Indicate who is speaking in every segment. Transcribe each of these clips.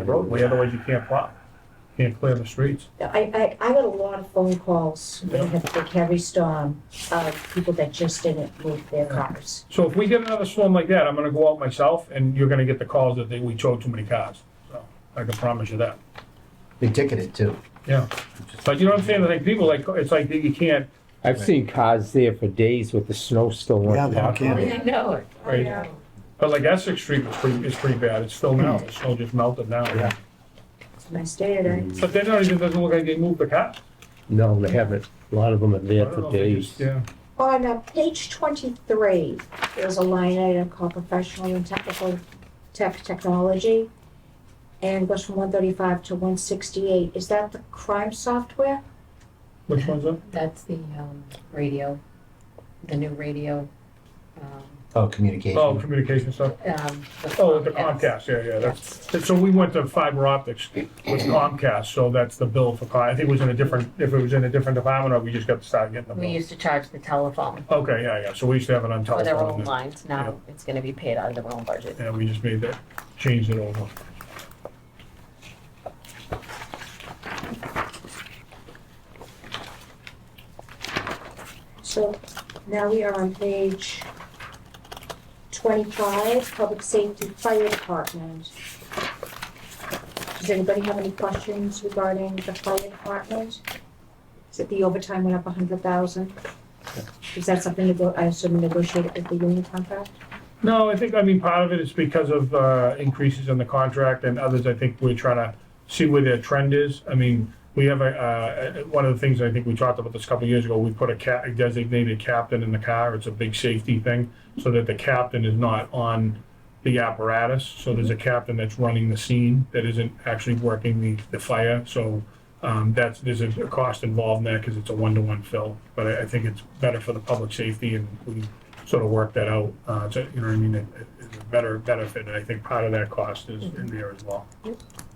Speaker 1: the roadway, otherwise you can't plow, can't clear the streets.
Speaker 2: I, I, I got a lot of phone calls during the big heavy storm of people that just didn't move their cars.
Speaker 1: So if we get another storm like that, I'm gonna go out myself, and you're gonna get the calls that they, we towed too many cars, so, I can promise you that,
Speaker 3: They ticketed too.
Speaker 1: yeah. But you know what I'm saying, I think people like, it's like, you can't,
Speaker 4: I've seen cars there for days with the snow still on.
Speaker 3: Yeah, they don't
Speaker 4: top.
Speaker 3: care.
Speaker 5: I know it.
Speaker 1: Right. but like Essex Street was pretty, is pretty bad, it's still now, the snow just melted now.
Speaker 3: Yeah.
Speaker 2: It's my stay today.
Speaker 1: But they're not even, doesn't look like they moved the car.
Speaker 4: No, they haven't. A lot of them are there for days.
Speaker 1: Yeah,
Speaker 2: On uh, page twenty-three, there's a line item called professional and technical tech technology. And goes from one thirty-five to one sixty-eight. Is that the crime software?
Speaker 1: which one's that?
Speaker 5: That's the, um, radio, the new radio, um,
Speaker 3: Oh,
Speaker 1: Oh,
Speaker 3: communication.
Speaker 1: communication stuff,
Speaker 5: um.
Speaker 1: oh, the Comcast, yeah, yeah, that's, So we went to fiber optics with Comcast, so that's the bill for, Con- I think it was in a different, if it was in a different department, or we just got to start getting the
Speaker 5: We
Speaker 1: bill.
Speaker 5: used to charge the telephone
Speaker 1: Okay, yeah, yeah, so we used to have it on
Speaker 5: for their own
Speaker 1: telephone, and-
Speaker 5: lines, now it's gonna be paid out of their own budget.
Speaker 1: and we just made that, changed it over.
Speaker 2: So now we are on page twenty-five, Public Safety Fire Department. Does anybody have any questions regarding the fire department? Is it the overtime went up a hundred thousand? Is that something to go, I assume negotiated with the union contract?
Speaker 1: No, I think, I mean, part of it is because of uh, increases in the contract and others, I think we're trying to see where their trend is. I mean, we have a, uh, one of the things I think we talked about this a couple of years ago, we put a ca- a designated captain in the car. It's a big safety thing, so that the captain is not on the apparatus. So there's a captain that's running the scene that isn't actually working the, the fire. So um, that's, there's a a cost involved in that because it's a one-to-one fill. But I, I think it's better for the public safety and we sort of work that out. Uh, to, you know what I mean? It, it- it's a better benefit, and I think part of that cost is
Speaker 2: Mm-hmm.
Speaker 1: in there as well.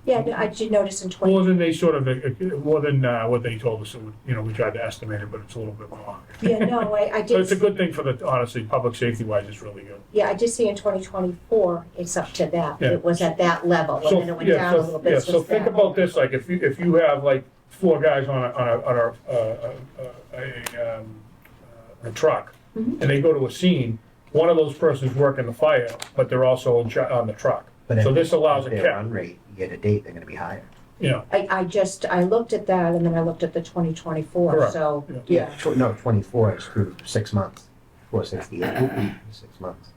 Speaker 2: Yeah, no, I did notice in twenty,
Speaker 1: More than they sort of, uh, more than uh, what they told us, it would- you know, we tried to estimate it, but it's a little bit more.
Speaker 2: yeah, no, I, I
Speaker 1: So it's a
Speaker 2: did,
Speaker 1: good thing for the, honestly, public safety wise, it's really good.
Speaker 2: yeah, I did see in twenty twenty-four, it's up to that.
Speaker 1: Yeah.
Speaker 2: It was at that level, and
Speaker 1: So,
Speaker 2: then it went
Speaker 1: yeah,
Speaker 2: down a little
Speaker 1: so,
Speaker 2: bit.
Speaker 1: yeah,
Speaker 2: so
Speaker 1: so
Speaker 2: it's
Speaker 1: think
Speaker 2: that.
Speaker 1: about this, like, if you, if you have like four guys on a, on a, on a, uh, uh, a, um, uh, a truck, and
Speaker 2: Mhm.
Speaker 1: they go to a scene, one of those persons working the fire, but they're also in char- on the truck.
Speaker 3: But
Speaker 1: So
Speaker 3: if-
Speaker 1: this allows a
Speaker 3: if their
Speaker 1: cap.
Speaker 3: Run rate, you get a date, they're gonna be higher.
Speaker 1: Yeah,
Speaker 2: I, I just, I looked at that and then I looked at the twenty twenty-four,
Speaker 1: Correct.
Speaker 2: so,
Speaker 1: Yeah.
Speaker 2: yeah.
Speaker 3: Tw- No, twenty-four is through six months, four sixty-eight, six months.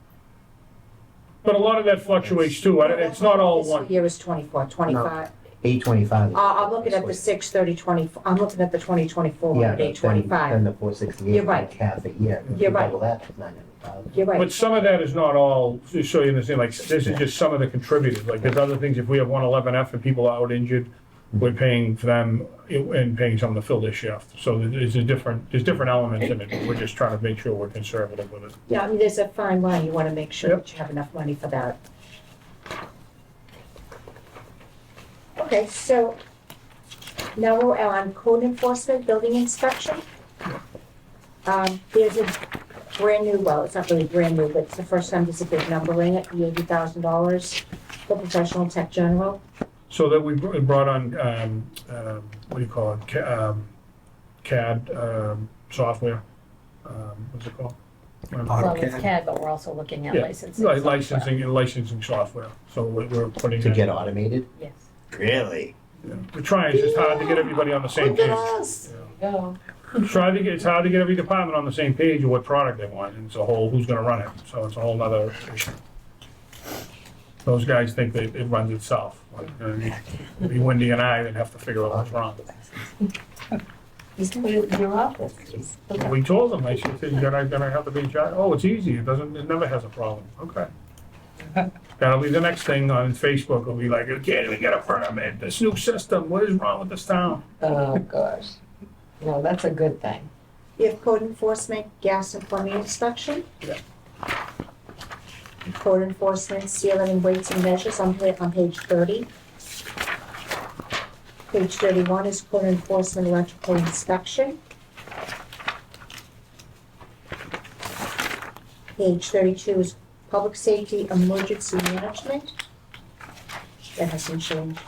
Speaker 1: but a lot of that fluctuates too, I- it's not all
Speaker 2: This
Speaker 1: one.
Speaker 2: Year is twenty-four, twenty-five.
Speaker 3: Eight twenty-five.
Speaker 2: Uh, I'm looking at the six thirty twenty, I'm looking at the twenty twenty-four, eight
Speaker 3: Yeah, but then, then
Speaker 2: twenty-five.
Speaker 3: the four sixty-eight.
Speaker 2: You're right.
Speaker 3: Half a year. If
Speaker 2: You're
Speaker 3: you
Speaker 2: right.
Speaker 3: double that, it's 900,000.
Speaker 2: You're
Speaker 1: But
Speaker 2: right,
Speaker 1: some of that is not all, just so you understand, like, this is just some of the contributors, like, there's other things, if we have one eleven F and people out injured, we're paying for them and paying someone to fill their shift, so there's a different, there's different elements in it, but we're just trying to make sure we're conservative with it.
Speaker 2: yeah, I mean, there's a fine line, you wanna make sure
Speaker 1: Yep.
Speaker 2: that you have enough money for that. Okay, so now we're on code enforcement, building inspection. Um, there's a brand new, well, it's not really brand new, but it's the first time there's a big number in it, the eighty thousand dollars for professional tech general.
Speaker 1: So that we br- brought on, um, um, what do you call it, Ca- um, CAD, um, software, um, what's it called?
Speaker 5: Well, it's CAD, but we're also looking at
Speaker 1: Yeah,
Speaker 5: licensing.
Speaker 1: Like
Speaker 5: software.
Speaker 1: Licensing, licensing software, so we're we're putting.
Speaker 3: To
Speaker 1: that-
Speaker 3: get automated?
Speaker 5: Yes.
Speaker 3: Really?
Speaker 1: We're trying, it's just hard to get everybody on the same
Speaker 2: Look at
Speaker 1: page.
Speaker 2: us.
Speaker 5: Go.
Speaker 1: Try to get, it's hard to get every department on the same page of what product they want, and it's a whole, who's gonna run it, so it's a whole nother issue. Those guys think that it runs itself, like, uh, it'd be Wendy and I that have to figure out what's wrong.
Speaker 5: Just put it in your office. Just look up.
Speaker 1: We told them, I said, then I, then I have to be in charge, oh, it's easy, it doesn't, it never has a problem, okay. That'll be the next thing on Facebook, it'll be like, you can't even get a permit, this new system, what is wrong with this town?
Speaker 5: Oh, gosh. No, that's a good thing.
Speaker 2: We have code enforcement, gas and plumbing inspection.
Speaker 1: Yeah.
Speaker 2: Code enforcement, sealing and weights and measures on pa- on page thirty. Page thirty-one is code enforcement electrical inspection. Page thirty-two is public safety emergency management. that hasn't changed.